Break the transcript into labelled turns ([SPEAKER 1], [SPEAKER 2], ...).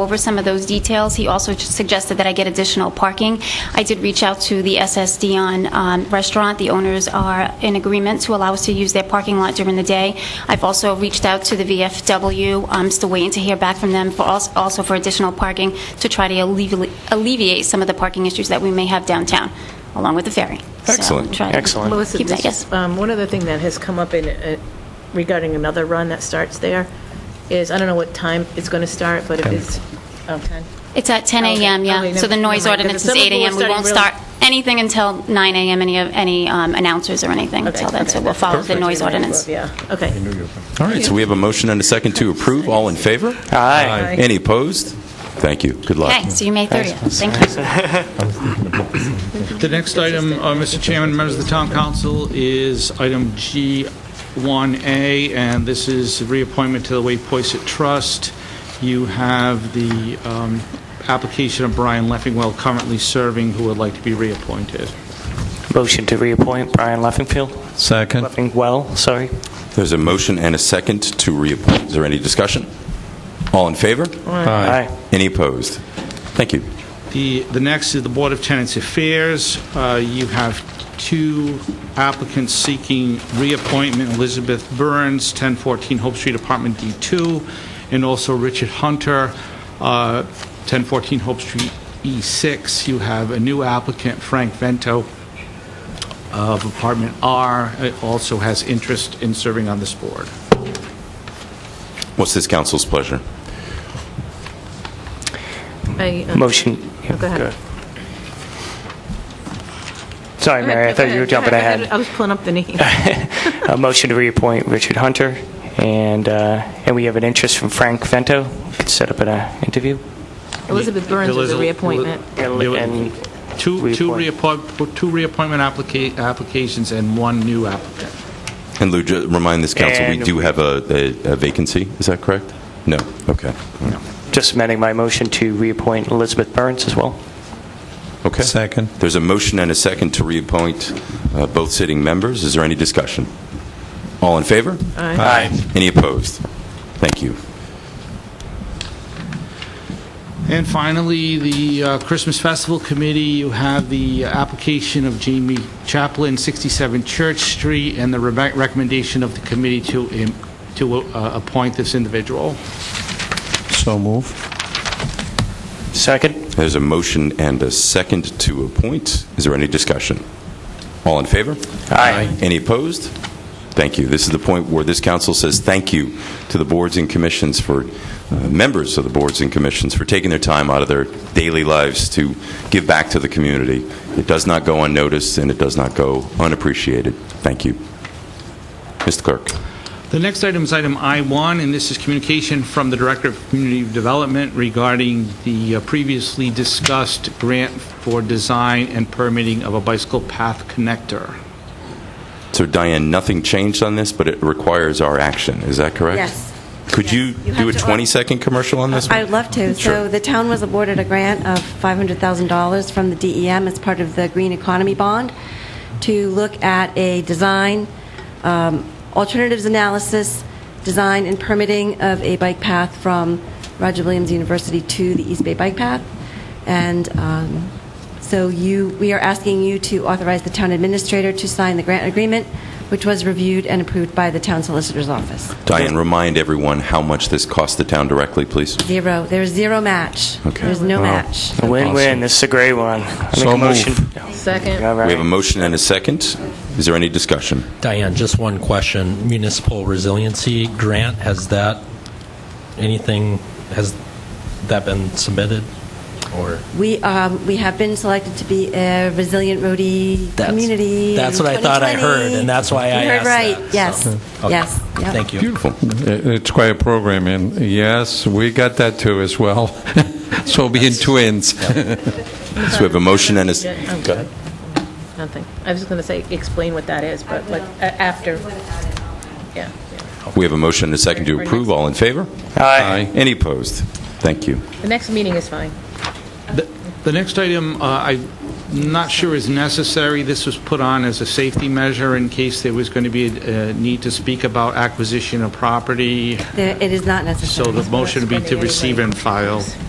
[SPEAKER 1] over some of those details. He also suggested that I get additional parking. I did reach out to the SS Dion um, Restaurant. The owners are in agreement to allow us to use their parking lot during the day. I've also reached out to the VFW. I'm still waiting to hear back from them, for als- also for additional parking to try to alleviate alleviate some of the parking issues that we may have downtown, along with the ferry. So,
[SPEAKER 2] Excellent.
[SPEAKER 1] try to
[SPEAKER 2] Excellent.
[SPEAKER 3] Melissa,
[SPEAKER 1] Keep that,
[SPEAKER 3] this
[SPEAKER 1] yes.
[SPEAKER 3] is, um, one other thing that has come up in, uh, regarding another run that starts there is, I don't know what time it's going to start, but if it's, oh, 10?
[SPEAKER 1] It's at 10
[SPEAKER 3] Okay.
[SPEAKER 1] a.m.,
[SPEAKER 3] Okay,
[SPEAKER 1] yeah.
[SPEAKER 3] never-
[SPEAKER 1] So the noise
[SPEAKER 3] never mind, 'cause
[SPEAKER 1] ordinance
[SPEAKER 3] the
[SPEAKER 1] is
[SPEAKER 3] summer
[SPEAKER 1] 8
[SPEAKER 3] pool is
[SPEAKER 1] a.m. We won't
[SPEAKER 3] starting
[SPEAKER 1] start anything until 9 a.m., any of any um, announcers or anything
[SPEAKER 3] Okay,
[SPEAKER 1] until then,
[SPEAKER 3] okay,
[SPEAKER 1] so we'll
[SPEAKER 3] that's-
[SPEAKER 1] follow the
[SPEAKER 3] that's
[SPEAKER 1] noise
[SPEAKER 3] what I'm mindful
[SPEAKER 1] ordinance.
[SPEAKER 3] of, Yeah, okay.
[SPEAKER 2] All right, so we have a motion and a second to approve. All in favor?
[SPEAKER 3] Aye.
[SPEAKER 2] Any opposed? Thank you. Good luck.
[SPEAKER 1] Okay, so you May 30th. Thank you.
[SPEAKER 4] The next item, uh, Mr. Chairman, members of the Town Council, is item G1A, and this is reappointment to the Waypoisett Trust. You have the um, application of Brian Leffingwell currently serving, who would like to be reappointed.
[SPEAKER 5] Motion to reappoint Brian Leffingfield,
[SPEAKER 6] Second.
[SPEAKER 5] Leffingwell, sorry.
[SPEAKER 2] There's a motion and a second to reappoint. Is there any discussion? All in favor?
[SPEAKER 5] Aye.
[SPEAKER 2] Any opposed? Thank you.
[SPEAKER 4] The, the next is the Board of Tenants Affairs. Uh, You have two applicants seeking reappointment, Elizabeth Burns, 1014 Hope Street, Apartment D2, and also Richard Hunter, uh, 1014 Hope Street E6. You have a new applicant, Frank Vento, of Apartment R, uh, also has interest in serving on this board.
[SPEAKER 2] What's this council's pleasure?
[SPEAKER 3] I, um,
[SPEAKER 5] Motion.
[SPEAKER 3] Oh, Go ahead.
[SPEAKER 5] Sorry, Mary, I thought you were jumping
[SPEAKER 3] I
[SPEAKER 5] ahead.
[SPEAKER 3] was pulling up the name.
[SPEAKER 5] A motion to reappoint Richard Hunter, and, uh, and we have an interest from Frank Vento. Could set up an uh, interview.
[SPEAKER 3] Elizabeth Burns is a
[SPEAKER 4] Eliz-
[SPEAKER 3] reappointment.
[SPEAKER 5] And-
[SPEAKER 4] There were
[SPEAKER 5] and
[SPEAKER 4] Two, two
[SPEAKER 5] reappoint.
[SPEAKER 4] reappoint- two reappointment applica- applications and one new applicant.
[SPEAKER 2] And Lou, ju- remind this council, we
[SPEAKER 5] And-
[SPEAKER 2] do have a a- a vacancy, is that correct? No, okay.
[SPEAKER 5] Just amending my motion to reappoint Elizabeth Burns as well.
[SPEAKER 2] Okay.
[SPEAKER 6] Second.
[SPEAKER 2] There's a motion and a second to reappoint uh, both sitting members. Is there any discussion? All in favor?
[SPEAKER 3] Aye.
[SPEAKER 2] Any opposed? Thank you.
[SPEAKER 4] And finally, the uh, Christmas Festival Committee, you have the application of Jamie Chaplin, 67 Church Street, and the re- recommendation of the committee to im- to uh, appoint this individual.
[SPEAKER 6] So move.
[SPEAKER 5] Second?
[SPEAKER 2] There's a motion and a second to appoint. Is there any discussion? All in favor?
[SPEAKER 5] Aye.
[SPEAKER 2] Any opposed? Thank you. This is the point where this council says thank you to the boards and commissions for, uh, members of the boards and commissions for taking their time out of their daily lives to give back to the community. It does not go unnoticed, and it does not go unappreciated. Thank you. Mr. Clerk.
[SPEAKER 4] The next item is item I-1, and this is communication from the Director of Community Development regarding the uh, previously discussed grant for design and permitting of a bicycle path connector.
[SPEAKER 2] So Diane, nothing changed on this, but it requires our action. Is that correct?
[SPEAKER 7] Yes.
[SPEAKER 2] Could you
[SPEAKER 7] You
[SPEAKER 2] do a
[SPEAKER 7] have to-
[SPEAKER 2] 20-second commercial on this one?
[SPEAKER 7] I would love to. So the town was awarded a grant of $500,000 from the DEM as part of the Green Economy Bond to look at a design, um, alternatives analysis, design and permitting of a bike path from Roger Williams University to the East Bay Bike Path. And um, so you, we are asking you to authorize the town administrator to sign the grant agreement, which was reviewed and approved by the town solicitor's office.
[SPEAKER 2] Diane, remind everyone how much this cost the town directly, please.
[SPEAKER 7] Zero. There's zero match.
[SPEAKER 2] Okay.
[SPEAKER 7] There's no match.
[SPEAKER 5] A Win-win, this is a great one. I make
[SPEAKER 6] So
[SPEAKER 5] a
[SPEAKER 6] moved.
[SPEAKER 5] motion.
[SPEAKER 3] Second.
[SPEAKER 5] All
[SPEAKER 2] We have a
[SPEAKER 5] right.
[SPEAKER 2] motion and a second. Is there any discussion?
[SPEAKER 8] Diane, just one question. Municipal resiliency grant, has that, anything, has that been submitted? Or?
[SPEAKER 7] We, um, we have been selected to be a resilient roadie
[SPEAKER 8] That's-
[SPEAKER 7] community.
[SPEAKER 8] that's
[SPEAKER 7] in
[SPEAKER 8] what I thought I
[SPEAKER 7] 2020.
[SPEAKER 8] heard, and that's why I
[SPEAKER 7] You heard
[SPEAKER 8] asked
[SPEAKER 7] right.
[SPEAKER 8] that,
[SPEAKER 7] Yes,
[SPEAKER 8] so. Okay.
[SPEAKER 7] yes. Yep.
[SPEAKER 8] Thank you.
[SPEAKER 2] Beautiful.
[SPEAKER 6] Uh, It's quite a program, and yes, we got that too as well. So being twins.
[SPEAKER 2] So we have a motion and a...
[SPEAKER 3] Yeah, I'm
[SPEAKER 2] s-
[SPEAKER 3] good. Nothing. I was just going to say, explain what that is, but like, a- after, yeah. yeah.
[SPEAKER 2] We have a motion and a second to approve. All in favor?
[SPEAKER 5] Aye.
[SPEAKER 2] Any opposed? Thank you.
[SPEAKER 3] The next meeting is fine.
[SPEAKER 4] The the next item, uh, I'm not sure is necessary. This was put on as a safety measure in case there was going to be a a need to speak about acquisition of property.
[SPEAKER 7] There- It is not
[SPEAKER 4] So
[SPEAKER 7] necessary.
[SPEAKER 4] the motion would be to receive and file.